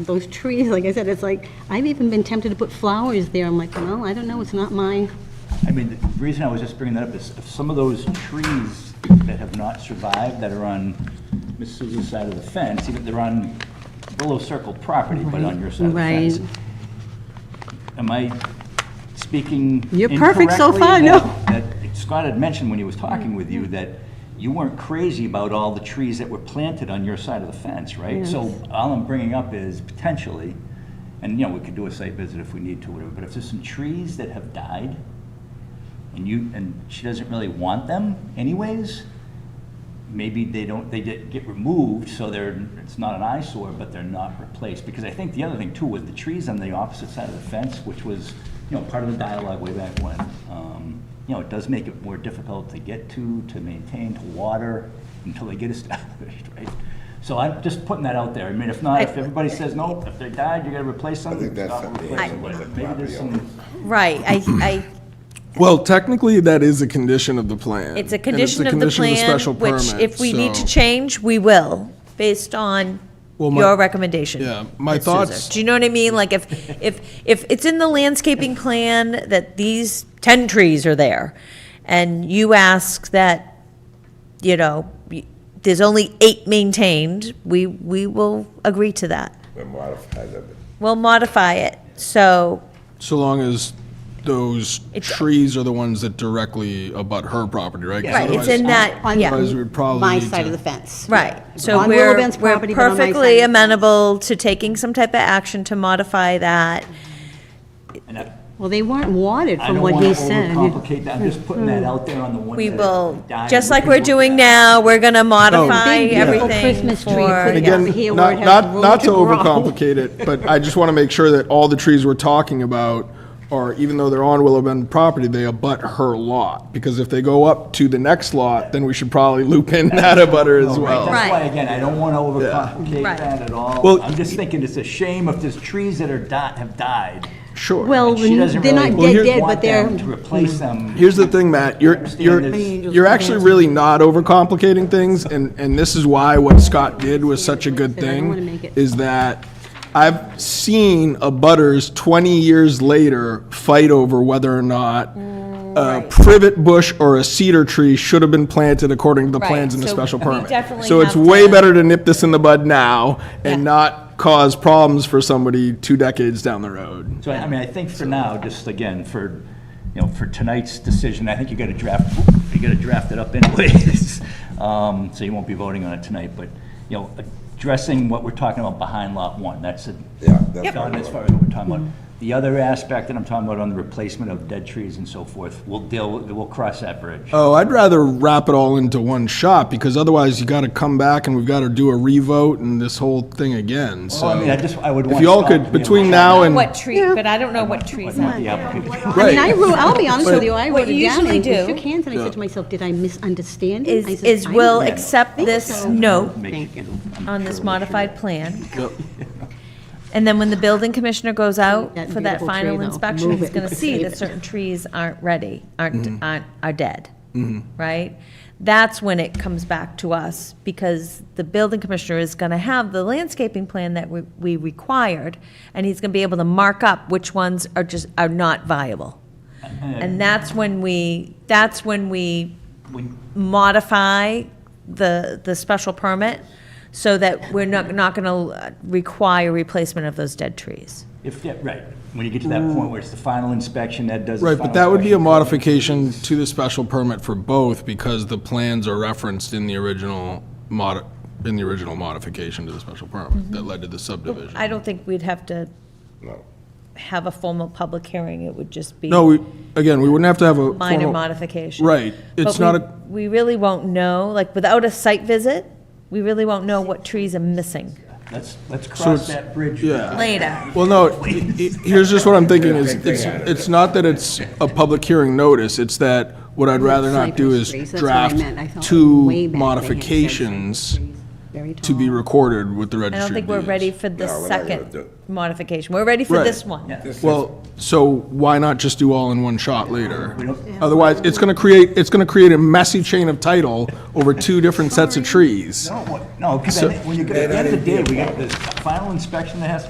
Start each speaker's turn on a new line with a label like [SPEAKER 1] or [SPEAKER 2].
[SPEAKER 1] those trees, like I said, it's like, I've even been tempted to put flowers there. I'm like, well, I don't know, it's not my,
[SPEAKER 2] I mean, the reason I was just bringing that up is if some of those trees that have not survived, that are on Miss Souza's side of the fence, even they're on Willow Circle property, but on your side of the fence.
[SPEAKER 1] Right.
[SPEAKER 2] Am I speaking
[SPEAKER 1] You're perfect so
[SPEAKER 2] incorrectly
[SPEAKER 1] far, no.
[SPEAKER 2] that- that Scott had mentioned when he was talking with you that you weren't crazy about all the trees that were planted on your side of the fence, right? So all I'm bringing up is potentially, and, you know, we could do a site visit if we need to, whatever, but if there's some trees that have died, and you, and she doesn't really want them anyways, maybe they don't, they get, get removed, so they're, it's not an eyesore, but they're not replaced. Because I think the other thing too was the trees on the opposite side of the fence, which was, you know, part of the dialogue way back when. Um, You know, it does make it more difficult to get to, to maintain, to water, until they get established, right? So I'm just putting that out there. I mean, if not, if everybody says, no, if they died, you gotta replace something,
[SPEAKER 3] that's
[SPEAKER 2] stop
[SPEAKER 3] something
[SPEAKER 2] replacing, but
[SPEAKER 3] that the
[SPEAKER 2] maybe there's
[SPEAKER 3] property
[SPEAKER 2] some.
[SPEAKER 4] Right, I, I,
[SPEAKER 5] Well, technically, that is a condition of the plan.
[SPEAKER 4] it's a
[SPEAKER 5] and
[SPEAKER 4] condition of the
[SPEAKER 5] condition
[SPEAKER 4] plan,
[SPEAKER 5] special
[SPEAKER 4] which
[SPEAKER 5] permit,
[SPEAKER 4] if we need to
[SPEAKER 5] so-
[SPEAKER 4] change, we will, based on
[SPEAKER 5] Well, my-
[SPEAKER 4] your recommendation.
[SPEAKER 5] Yeah, my
[SPEAKER 4] Ms. Souza.
[SPEAKER 5] thoughts-
[SPEAKER 4] Do you know what I mean? Like if, if, if it's in the landscaping plan that these ten trees are there, and you ask that, you know, y- there's only eight maintained, we, we will agree to that.
[SPEAKER 3] We're modified of it.
[SPEAKER 4] We'll modify it, so,
[SPEAKER 5] So long as those
[SPEAKER 4] It's-
[SPEAKER 5] trees are the ones that directly abut her property, right? 'Cause
[SPEAKER 4] right, it's
[SPEAKER 5] otherwise-
[SPEAKER 4] in that,
[SPEAKER 1] On-
[SPEAKER 4] yeah.
[SPEAKER 5] Otherwise, we'd probably
[SPEAKER 1] my
[SPEAKER 5] need to-
[SPEAKER 1] side of the fence.
[SPEAKER 4] Right, so
[SPEAKER 1] On
[SPEAKER 4] we're,
[SPEAKER 1] Willowbend's
[SPEAKER 4] we're
[SPEAKER 1] property, but on my side of
[SPEAKER 4] perfectly
[SPEAKER 1] the fence.
[SPEAKER 4] amenable to taking some type of action to modify that.
[SPEAKER 2] and I-
[SPEAKER 1] Well, they weren't wated
[SPEAKER 2] I
[SPEAKER 1] from
[SPEAKER 2] don't
[SPEAKER 1] what
[SPEAKER 2] want
[SPEAKER 1] he
[SPEAKER 2] to
[SPEAKER 1] said.
[SPEAKER 2] overcomplicate that, I'm just putting that out there on the one.
[SPEAKER 4] Hmm. We
[SPEAKER 2] that
[SPEAKER 4] will,
[SPEAKER 2] died
[SPEAKER 4] just
[SPEAKER 2] and
[SPEAKER 4] like
[SPEAKER 2] we can
[SPEAKER 4] we're
[SPEAKER 2] look
[SPEAKER 4] doing
[SPEAKER 2] at.
[SPEAKER 4] now, we're gonna modify
[SPEAKER 1] Big, beautiful
[SPEAKER 4] everything
[SPEAKER 1] Christmas tree
[SPEAKER 4] for,
[SPEAKER 1] put
[SPEAKER 4] yeah.
[SPEAKER 1] down here where
[SPEAKER 5] Not,
[SPEAKER 1] it has
[SPEAKER 5] not,
[SPEAKER 1] room
[SPEAKER 5] not to
[SPEAKER 1] grow.
[SPEAKER 5] overcomplicate it, but I just want to make sure that all the trees we're talking about are, even though they're on Willow Bend property, they abut her lot. Because if they go up to the next lot, then we should probably loop in that abutter as
[SPEAKER 4] Oh
[SPEAKER 1] Oh,
[SPEAKER 2] All right, That's
[SPEAKER 5] well.
[SPEAKER 2] why,
[SPEAKER 4] Right.
[SPEAKER 2] again, I don't want to overcomplicate
[SPEAKER 4] Right.
[SPEAKER 2] that at all.
[SPEAKER 5] Well-
[SPEAKER 2] I'm just thinking it's a shame if there's trees that are di- have died.
[SPEAKER 5] Sure.
[SPEAKER 1] Well,
[SPEAKER 2] and she
[SPEAKER 1] they're
[SPEAKER 2] doesn't
[SPEAKER 1] not
[SPEAKER 2] really
[SPEAKER 1] dead, dead,
[SPEAKER 2] want
[SPEAKER 1] but they're,
[SPEAKER 2] them To replace them.
[SPEAKER 5] Mm-hmm. Here's the thing, Matt, you're,
[SPEAKER 2] Um, understand
[SPEAKER 5] you're,
[SPEAKER 2] there's-
[SPEAKER 5] you're actually really not overcomplicating things, and, and this is why what Scott did was such a good
[SPEAKER 1] But I don't wanna
[SPEAKER 5] thing,
[SPEAKER 1] make it-
[SPEAKER 5] is that I've seen a butters twenty years later fight over whether or not a privet bush or a cedar tree should have been planted according to the
[SPEAKER 4] Right,
[SPEAKER 5] plans in the
[SPEAKER 4] so
[SPEAKER 5] special
[SPEAKER 4] we
[SPEAKER 5] permit.
[SPEAKER 4] definitely
[SPEAKER 5] So it's
[SPEAKER 4] have
[SPEAKER 5] way
[SPEAKER 4] to-
[SPEAKER 5] better to nip this in the bud now and
[SPEAKER 4] Yeah.
[SPEAKER 5] not cause problems for somebody two decades down the road.
[SPEAKER 2] So, I I mean, I think for now, just again, for, you know, for tonight's decision, I think you got to draft, you got to draft it up anyways. Um, So you won't be voting on it tonight, but, you know, addressing what we're talking about behind lot one, that's a,
[SPEAKER 3] Yeah, that's
[SPEAKER 2] done
[SPEAKER 3] what
[SPEAKER 2] as
[SPEAKER 3] I
[SPEAKER 2] far
[SPEAKER 3] want.
[SPEAKER 2] as what we're talking about. The other aspect that I'm talking about on the replacement of dead trees and so forth, we'll deal, with- we'll cross that bridge.
[SPEAKER 5] Oh, I'd rather wrap it all into one shot because otherwise you got to come back and we've got to do a revote and this whole thing again. So
[SPEAKER 2] Well, I mean, I just, I would
[SPEAKER 5] if
[SPEAKER 2] want.
[SPEAKER 5] you all
[SPEAKER 2] Scott to
[SPEAKER 5] could,
[SPEAKER 2] be able to-
[SPEAKER 5] between now and
[SPEAKER 4] What tree, but I don't know what
[SPEAKER 2] I'd
[SPEAKER 4] trees.
[SPEAKER 2] want the applicant-
[SPEAKER 1] I mean, I
[SPEAKER 5] Right.
[SPEAKER 1] wrote, I'll be honest with
[SPEAKER 5] But-
[SPEAKER 1] you, I
[SPEAKER 4] What
[SPEAKER 1] wrote
[SPEAKER 4] you
[SPEAKER 1] it down,
[SPEAKER 4] usually
[SPEAKER 1] and I
[SPEAKER 4] do-
[SPEAKER 1] shook hands, and I said to myself, did I misunderstand? it?" I
[SPEAKER 4] Is,
[SPEAKER 1] said,
[SPEAKER 4] is
[SPEAKER 1] "I
[SPEAKER 4] will
[SPEAKER 1] don't know."
[SPEAKER 4] accept this note
[SPEAKER 2] make
[SPEAKER 1] Thank
[SPEAKER 2] you-
[SPEAKER 1] you.
[SPEAKER 2] I'm
[SPEAKER 4] on
[SPEAKER 2] sure we'll
[SPEAKER 4] this
[SPEAKER 2] shoot
[SPEAKER 4] modified
[SPEAKER 2] it.
[SPEAKER 4] plan. And then when the building commissioner goes out
[SPEAKER 1] That
[SPEAKER 4] for that
[SPEAKER 1] beautiful
[SPEAKER 4] final
[SPEAKER 1] tree, though.
[SPEAKER 4] inspection,
[SPEAKER 1] Move
[SPEAKER 4] he's
[SPEAKER 1] it.
[SPEAKER 4] gonna see
[SPEAKER 1] Save
[SPEAKER 4] that
[SPEAKER 1] it.
[SPEAKER 4] certain trees aren't ready,
[SPEAKER 2] Mm-hmm.
[SPEAKER 4] aren't, aren't, are dead, right? That's when it comes back to us, because the building commissioner is gonna have the landscaping plan that we, we required, and he's gonna be able to mark up which ones are just, are not viable. And that's when we, that's when we
[SPEAKER 2] When-
[SPEAKER 4] modify the, the special permit so that we're not, not going to require replacement of those dead trees.
[SPEAKER 2] If, yeah, right, when you get to that point where it's the final inspection, that does. the
[SPEAKER 5] right, but
[SPEAKER 2] final
[SPEAKER 5] that would be a
[SPEAKER 2] inspection.
[SPEAKER 5] modification to the special permit for both because the plans are referenced in the original mod in the original modification to the special permit that led to the subdivision.
[SPEAKER 4] Mm-hmm. I don't think we'd have to
[SPEAKER 3] No.
[SPEAKER 4] have a formal public hearing, it would just be
[SPEAKER 5] No, we again, we wouldn't have to have a
[SPEAKER 4] minor
[SPEAKER 5] formal-
[SPEAKER 4] modification.
[SPEAKER 5] Right,
[SPEAKER 4] But
[SPEAKER 5] it's not
[SPEAKER 4] we- We
[SPEAKER 5] a
[SPEAKER 4] really won't know, like, without a site visit, we really won't know what trees are missing
[SPEAKER 2] Let's, let's cross
[SPEAKER 5] it's-
[SPEAKER 2] that bridge.
[SPEAKER 5] yeah.
[SPEAKER 4] later.
[SPEAKER 5] Well, no, i- i- here's just what I'm thinking is, it's, it's not that it's a public hearing notice, it's that what I'd rather not do is
[SPEAKER 1] Cypress trees, that's what I
[SPEAKER 5] draft
[SPEAKER 1] meant. I thought way
[SPEAKER 5] two
[SPEAKER 1] back they had said
[SPEAKER 5] modifications
[SPEAKER 1] cypress trees, very
[SPEAKER 5] to be
[SPEAKER 1] tall.
[SPEAKER 5] recorded with the
[SPEAKER 4] I
[SPEAKER 5] registry.
[SPEAKER 4] don't think we're
[SPEAKER 5] of
[SPEAKER 4] ready
[SPEAKER 5] Deeds.
[SPEAKER 4] for the
[SPEAKER 3] No, we're not gonna do
[SPEAKER 4] second
[SPEAKER 3] it.
[SPEAKER 4] modification, we're ready for
[SPEAKER 5] Right.
[SPEAKER 4] this one.
[SPEAKER 5] Well, so why not just do all in one shot later?
[SPEAKER 2] don't-
[SPEAKER 5] Otherwise, it's gonna create, it's gonna create a messy chain of title over two different sets of trees.
[SPEAKER 2] No, what- no, because when you, get- at the end of the day, we got this final inspection that has to